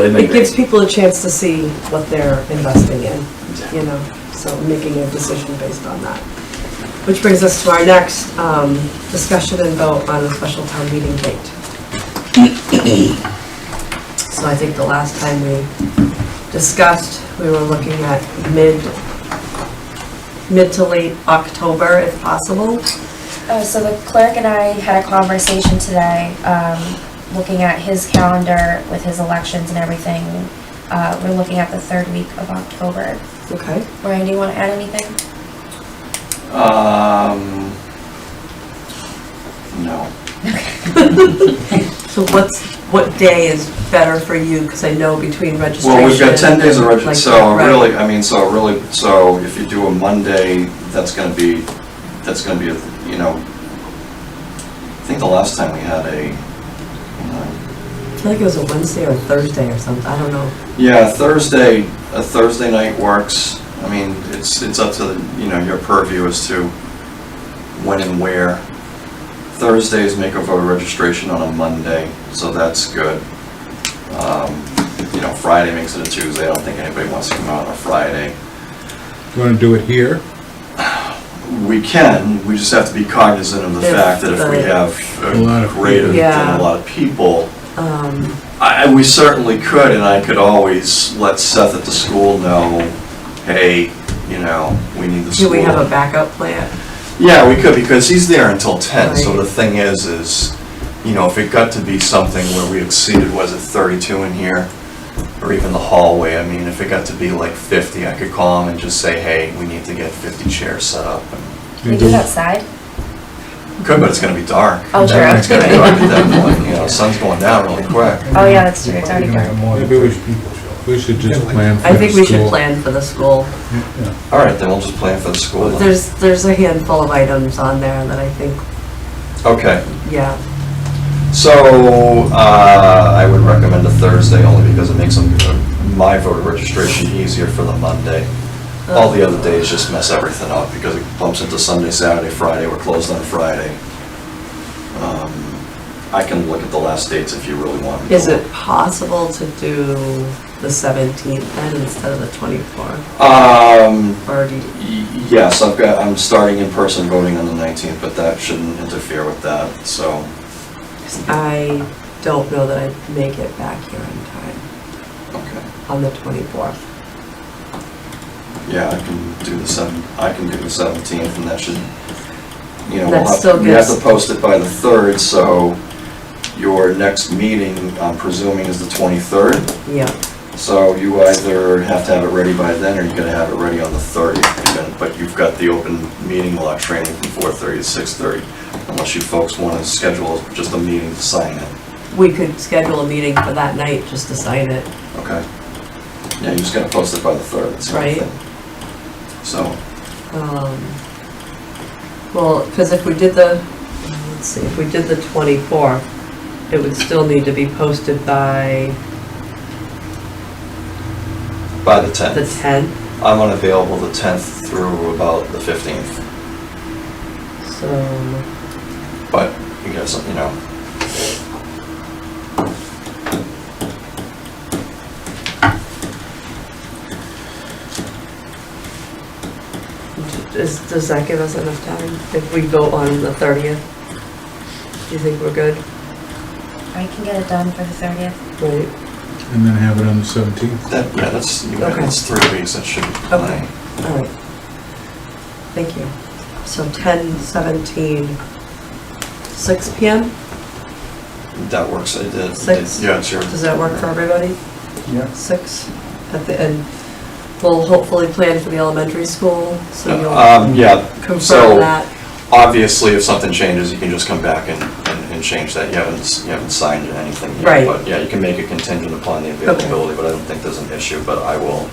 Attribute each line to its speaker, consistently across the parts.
Speaker 1: they make.
Speaker 2: It gives people a chance to see what they're investing in, you know, so making a decision based on that. Which brings us to our next um, discussion and vote on the special town meeting date. So I think the last time we discussed, we were looking at mid, mid to late October if possible.
Speaker 3: Uh, so the clerk and I had a conversation today, um, looking at his calendar with his elections and everything. Uh, we're looking at the third week of October.
Speaker 2: Okay.
Speaker 3: Ryan, do you want to add anything?
Speaker 4: Um, no.
Speaker 2: So what's, what day is better for you? Because I know between registration.
Speaker 4: Well, we've got ten days of
Speaker 2: like,
Speaker 4: reg, so
Speaker 2: right.
Speaker 4: really, I mean, so really, so if you do a Monday, that's gonna be, that's gonna be, a you know, I think the last time we had a, you know,
Speaker 2: I feel like it was a Wednesday or a Thursday or something, I don't know.
Speaker 4: Yeah, Thursday, a Thursday night works. I mean, it's, it's up to, you know, your purview as to when and where. Thursdays make a voter registration on a Monday, so that's good. Um, You know, Friday makes it a Tuesday. I don't think anybody wants to come out on a Friday.
Speaker 5: You want to do it here?
Speaker 4: We can, we just have to be cognizant of the
Speaker 2: If
Speaker 4: fact that if we
Speaker 2: the-
Speaker 4: have
Speaker 5: A lot
Speaker 4: a
Speaker 5: of
Speaker 4: greater
Speaker 2: people.
Speaker 4: than
Speaker 2: Yeah.
Speaker 4: a lot of people,
Speaker 2: Um,
Speaker 4: I, I- we certainly could, and I could always let Seth at the school know, hey, you know, we need the
Speaker 2: Do
Speaker 4: school.
Speaker 2: we have a backup plan?
Speaker 4: Yeah, we could, because he's there until ten, so
Speaker 2: Right.
Speaker 4: the thing is, is, you know, if it got to be something where we exceeded, was it thirty-two in here? Or even the hallway, I mean, if it got to be like fifty, I could call him and just say, hey, we need to get fifty chairs set up. and-
Speaker 3: We do it outside.
Speaker 4: Could, but it's gonna be dark.
Speaker 3: Oh, true.
Speaker 4: It's gonna be dark at that point, you know, sun's going down really quick.
Speaker 3: Oh, yeah, that's true. It's already dark.
Speaker 5: Maybe we should, we should just plan for
Speaker 2: I think we should
Speaker 5: school.
Speaker 2: plan for the school.
Speaker 4: All right, then we'll just plan for the school then.
Speaker 2: There's, there's a handful of items on there that I think,
Speaker 4: Okay.
Speaker 2: yeah,
Speaker 4: So, uh, I would recommend a Thursday only because it makes them- my voter registration easier for the Monday. All the other days just mess everything up because it bumps into Sunday, Saturday, Friday, we're closed on Friday. Um, I can look at the last dates if you really want me to.
Speaker 2: is it possible to do the 17th then instead of the 24th?
Speaker 4: Um,
Speaker 2: Or do you,
Speaker 4: y- yes, I've got, I'm starting in-person voting on the 19th, but that shouldn't interfere with that, so.
Speaker 2: 'cause I don't know that I'd make it back here in time
Speaker 4: Okay.
Speaker 2: on the 24th.
Speaker 4: Yeah, I can do the seven, I can do the seventeenth, and that should, you know,
Speaker 2: That
Speaker 4: we'll
Speaker 2: still
Speaker 4: have, we have
Speaker 2: gives-
Speaker 4: to post it by the third, so your next meeting, I'm presuming, is the twenty-third,
Speaker 2: Yeah,
Speaker 4: so you either have to have it ready by then, or you're gonna have it ready on the thirtieth, but you've got the open meeting law training from four-thirty to six-thirty, unless you folks wanna schedule just a meeting to sign it,
Speaker 2: we could schedule a meeting for that night just to sign it.
Speaker 4: okay? Yeah, you just gotta post it by the third, that's the only
Speaker 2: Right.
Speaker 4: thing. So,
Speaker 2: Um, Well, because if we did the, let's see, if we did the 24th, it would still need to be posted by
Speaker 4: by the tenth.
Speaker 2: the 10th,
Speaker 4: I'm unavailable the 10th through about the 15th,
Speaker 2: so,
Speaker 4: but you guys, you know.
Speaker 2: is- does that give us enough time if we vote on the 30th? Do you think we're good?
Speaker 3: I can get it done for the thirtieth.
Speaker 2: Right,
Speaker 5: And then have it on the 17th.
Speaker 4: That, yeah, that's, you know,
Speaker 2: Okay.
Speaker 4: that's three weeks, that should be
Speaker 2: Okay.
Speaker 4: plenty.
Speaker 2: all right. Thank you. So 10, 17, 6 PM?
Speaker 4: That works, it did.
Speaker 2: Six.
Speaker 4: Yeah, it's your.
Speaker 2: Does that work for everybody?
Speaker 5: Yeah.
Speaker 2: Six at the end. We'll hopefully plan for the elementary school, so you'll
Speaker 4: Um, yeah,
Speaker 2: confirm
Speaker 4: so-
Speaker 2: that.
Speaker 4: obviously, if something changes, you can just come back and, and, and change that. You haven't, s- you haven't signed anything yet.
Speaker 2: Right.
Speaker 4: But yeah, you can make it contingent upon the availability, but I don't think there's an issue, but I will.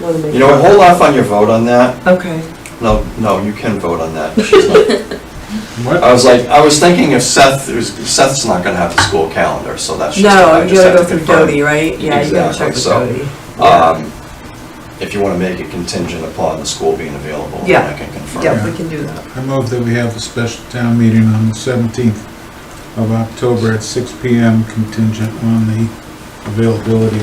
Speaker 2: Wanna make
Speaker 4: You know, what,
Speaker 2: sure.
Speaker 4: hold off on your vote on that.
Speaker 2: Okay,
Speaker 4: No, no, you can vote on that. She's not- I
Speaker 5: What?
Speaker 4: was like, I was thinking if Seth, Seth's not gonna have the school calendar, so that's just.
Speaker 2: no,
Speaker 4: I
Speaker 2: you
Speaker 4: just
Speaker 2: gotta
Speaker 4: have
Speaker 2: go
Speaker 4: to
Speaker 2: through
Speaker 4: confirm.
Speaker 2: Dodie, right? Yeah, you gotta check
Speaker 4: Exactly,
Speaker 2: with
Speaker 4: so,
Speaker 2: Dodie.
Speaker 4: Um, if you wanna make it contingent upon the school being available, then
Speaker 2: Yeah.
Speaker 4: I can confirm.
Speaker 2: Yeah, we can do that.
Speaker 5: I move that we have a special town meeting on the 17th of October at 6 PM contingent on the availability